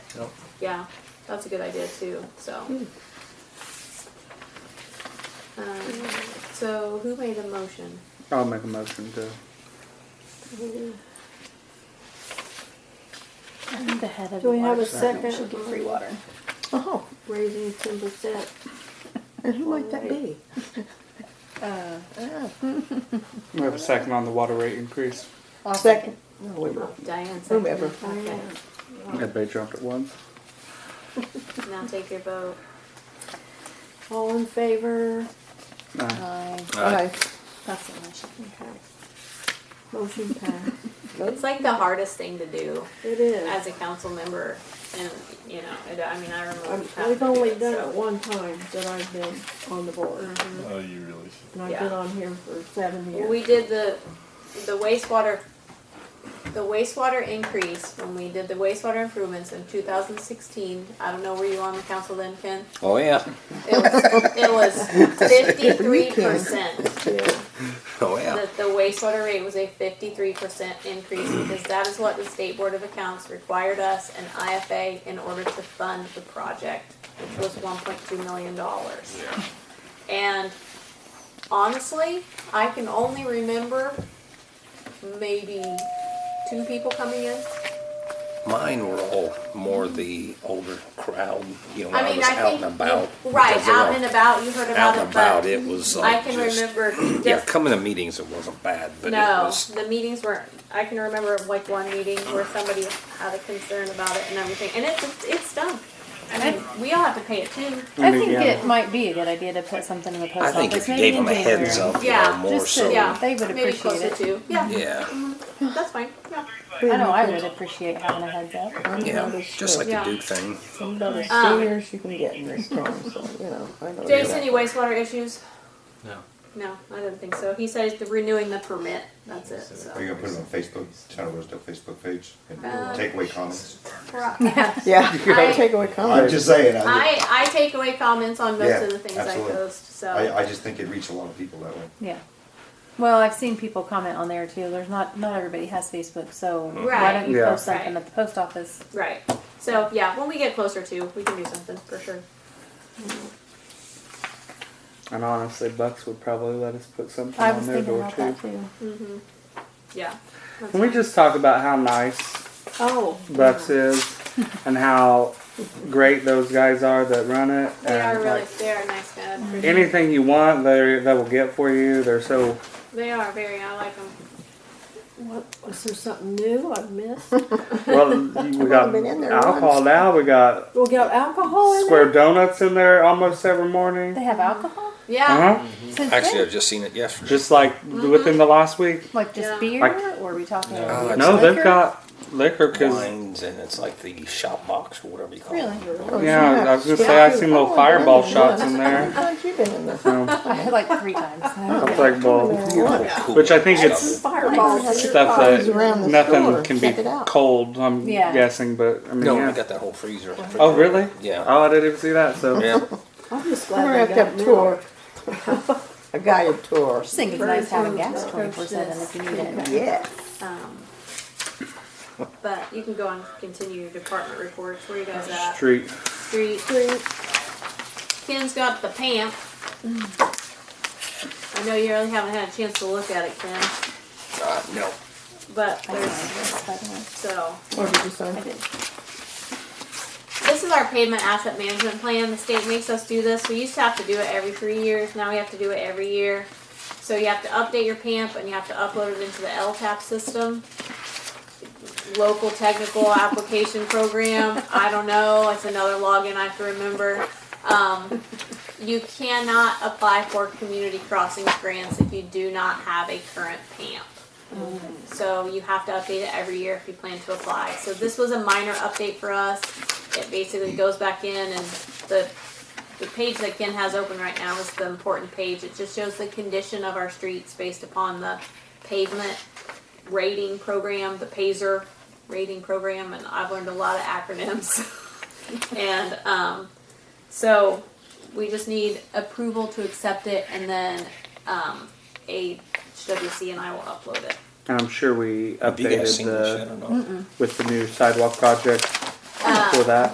Nope. Yeah, that's a good idea too. So. Hmm. Um, so who made the motion? I'll make a motion to. The head of Do we have a department second? Should get free water. Oh, raising ten percent. and who might that be? Uh, We have a second on the water rate increase. I'll Second. No, we won't. Oh, Diane. seconded. Whomever. Okay. Everybody jumped at once. Now take your vote. All in favor? Aye. Aye. Aye. That's the motion. Okay. Motion passed. It's like the hardest thing to do It is. as a council member, and you know, it, I mean, I remember. I'm- We've only done it one time that I've been on the board. Oh, you really should. And I've been Mm. Yeah. on here for seven years. We did the, the wastewater, the wastewater increase, when we did the wastewater improvements in two thousand sixteen, I don't know, were you on the council then, Ken? Oh yeah. It was, it was fifty-three percent, Yeah. Oh yeah. that the wastewater rate was a fifty-three percent increase, because that is what the State Board of Accounts required us and IFA in order to fund the project, which was one point two million dollars. Yeah. And honestly, I can only remember maybe two people coming in. Mine were all more the older crowd. You know, when I I, mean, was I out think and about. right because they out were and about. You heard about Out it, and about, but it was like I can just, remember. Yeah, diff- coming to meetings, it wasn't bad, but it no, was. the meetings were. I can remember like one meeting where somebody had a concern about it and everything, and it's it's done. I mean, we all have to pay it too. I think Yeah. it might be a good idea to put something in the I post think if office, you maybe gave in them a January. heads up, Yeah, a little more just to- so. yeah, they would maybe appreciate closer it. to yeah, Yeah, That's fine. Yeah. I know I would appreciate having a heads up. yeah, just like Yeah. the Duke thing. Some of the Um, seniors you can get in this town, so, you know, I Oh, know. Jason, any wastewater issues? No. No, I didn't think so. He says the renewing the permit. That's it. So. Are you gonna put it on Facebook, Town of Rosedale Facebook page, Uh, and take away comments? I, Yeah, you I- gotta take away I'm comments. just saying, I, I take away comments on most Yeah, of the things absolutely. I post. So I, I just think it reached a lot of people that way. Yeah. Well, I've seen people comment on there too. There's not not everybody has Facebook, so why Right. don't you Yeah. post something Right. at the post office? right. So yeah, when we get closer to, we can do something for sure. And honestly, Bucks would probably let us put something I on was their thinking door about too. that too. Yeah. Can we just talk about how nice Oh. Bucks is and how great those guys are that run it? They and are really like, they are nice guys. for sure. anything you want, they they will get for you. They're so They are very. I like them. What, was there something new I've missed? well. We got been in there alcohol once. now. We got We'll get alcohol in square there? donuts in there almost every morning. Oh, They have alcohol? Yeah. Uh huh. Since Actually, when? I've just seen it yesterday. Just like Mm-hmm. within the last week. Like just Yeah. beer, Like- or are we talking? No, about it's No, they've liquor? got liquor because wines, and it's like the shop box or whatever you call Really? it. Oh, Oh, yeah, I was gonna say I've seen little fireball shots in there. How long you been in this? Um, I had like three times. I I'll play ball. Cool Which I think stuff. it's Fireballs. stuff Always that around the store. nothing can be Check it out. cold, I'm Yeah. guessing, but I mean, No, I yeah. got that whole freezer. Oh, really? Yeah. Oh, I didn't even see that, so. Yeah. I'm just We're gonna glad have they to have got milk. a tour. A guided tour. just think it's nice having gas twenty four seven if you need it. Yeah. Um, but you can go and continue your department reports. Where you guys at? Street. Street. Ken's got the pamp. I know you really haven't had a chance to look at it, Ken, Uh, no. but I know, there's, that's by the way. so. Or did you sign? I did. This is our pavement asset management plan. The state makes us do this. We used to have to do it every three years. Now we have to do it every year. So you have to update your PAMP and you have to upload it into the LTAP system. Local technical application program. I don't know. It's another login I have to remember. Um, you cannot apply for community crossings grants if you do not have a current PAMP. So you have to update it every year if you plan to apply. So this was a minor update for us. It basically goes back in and the, the page that Ken has open right now is the important page. It just shows the condition of our streets based upon the pavement rating program, the PASER rating program, and I've learned a lot of acronyms. and, um, so we just need approval to accept it and then, um, HWC and I will upload it. And I'm sure we Have you guys updated seen this yet the, or not? with the new sidewalk project. Uh, for that.